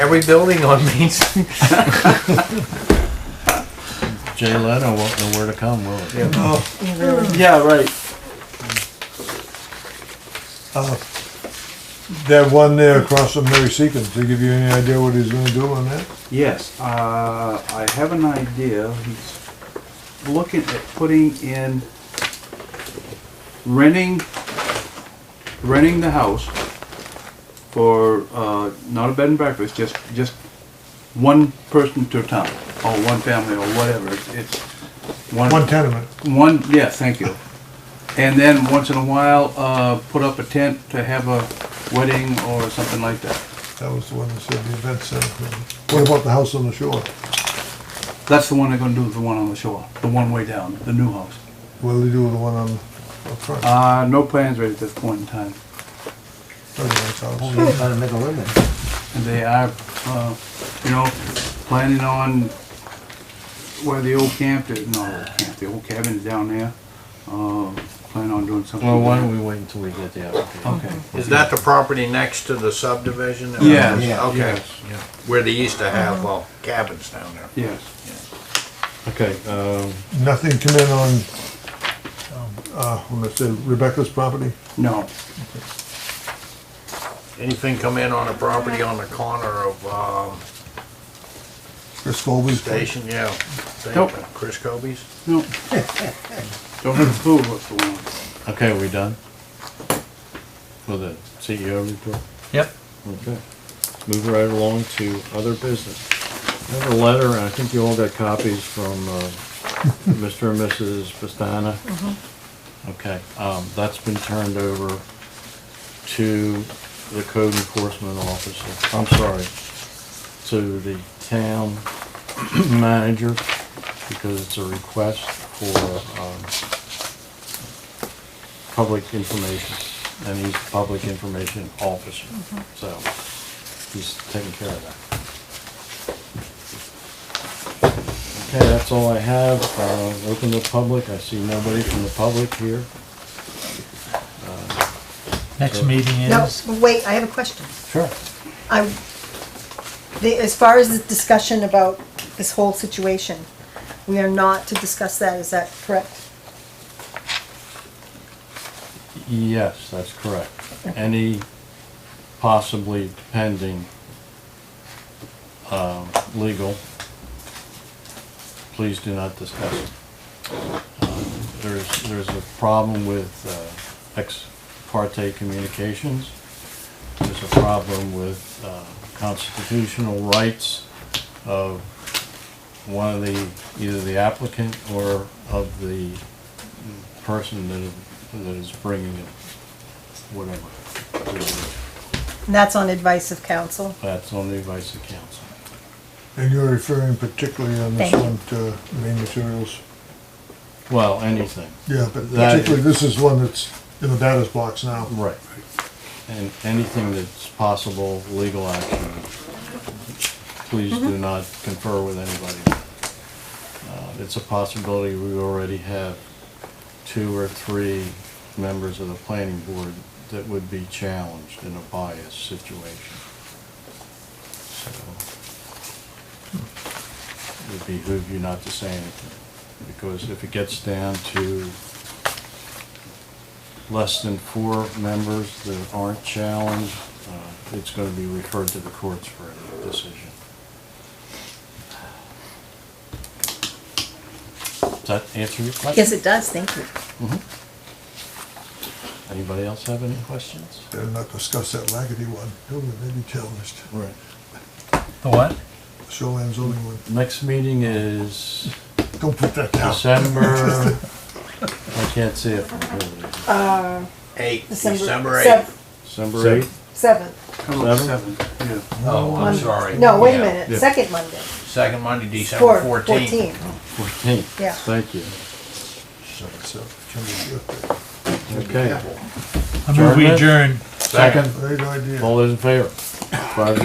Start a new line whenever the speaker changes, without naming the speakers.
every building on Main Street.
Jay Leno won't know where to come, will he?
Yeah, right.
That one there across from Mary Seacon, to give you any idea what he's gonna do on that?
Yes, uh, I have an idea. He's looking at putting in, renting, renting the house for, uh, not a bed and breakfast, just, just one person to a town, or one family, or whatever. It's- It's one,
One tenement.
one, yeah, thank you. And then once in a while, uh, put up a tent to have a wedding or something like that.
That was the one that said the event center. What about the house on the shore?
That's the one they're gonna do, the one on the shore, the one way down, the new house.
What'll he do with the one on, up front? Not
Uh, no plans right at this point in time.
a nice house.
He's trying to make a living.
And they are, uh, you know, planning on where the old camp is, no, the old camp, the old cabin is down there. Uh, planning on doing something.
Well, why don't
there.
we wait until we get the application?
Okay.
Is that the property next to the subdivision?
Yes,
Okay,
yes,
where they used to have uh, cabins down there.
Yes.
Okay, um,
Nothing come in on, um, uh, when I said Rebecca's property?
No,
Anything come in on a property on the corner of, um,
Chris Colby's?
Station, yeah.
Nope.
Chris Kobe's?
no. Don't have a clue what's going on.
okay, are we done? For the CEO report?
Yep.
Okay. Move right along to other business. I have a letter, and I think you all got copies from uh, Mr. and Mrs. Pastana. Okay, um, that's been turned over to the code enforcement officer, I'm sorry, to the town manager, because it's a request for, um, public information, and he's public information officer, so he's taking care of that. Okay, that's all I have, uh, open to public, I see nobody from the public here.
Next meeting
No,
is,
wait, I have a question.
Sure.
I, the, as far as the discussion about this whole situation, we are not to discuss that, is that correct?
Yes, that's correct. Any possibly pending, um, legal, please do not discuss it. Um, There's, there's a problem with uh, ex parte communications. There's a problem with uh, constitutional rights of one of the, either the applicant or of the person that is, that is bringing it, whatever.
And that's on advice of counsel?
That's on the advice of council.
And you're referring particularly on this
Thank you.
one to main materials?
Well, anything.
Yeah, but
That-
particularly, this is one that's in the batter's box now.
Right. And anything that's possible legal action, please do not confer with anybody. Uh, It's a possibility, we already have two or three members of the planning board that would be challenged in a bias situation. So hmm. It would behoove you not to say anything, because if it gets down to less than four members that aren't challenged, uh, it's going to be referred to the courts for a decision. Does that answer your question?
Yes, it does, thank you.
Anybody else have any questions?
Better not discuss that Lackady one, do we, maybe challenged,
Right.
the what?
shoreline zoning one,
Next meeting is
don't put that down.
December, I can't see it from here.
Eight,
December-
December
sev-
eighth.
December eighth?
Seventh,
Hello, seven,
Seven?
yeah.
Oh, I'm
Mon-
sorry.
no, wait a
Yeah.
minute,
yeah.
second Monday.
Second Monday,
Four-
December fourteenth.
14.
Fourteenth.
Yeah.
Thank you.
Shut it up. Can we get there?
Okay.
I move we
Adjournment?
adjourn.
Second,
Great idea.
all those in favor? Five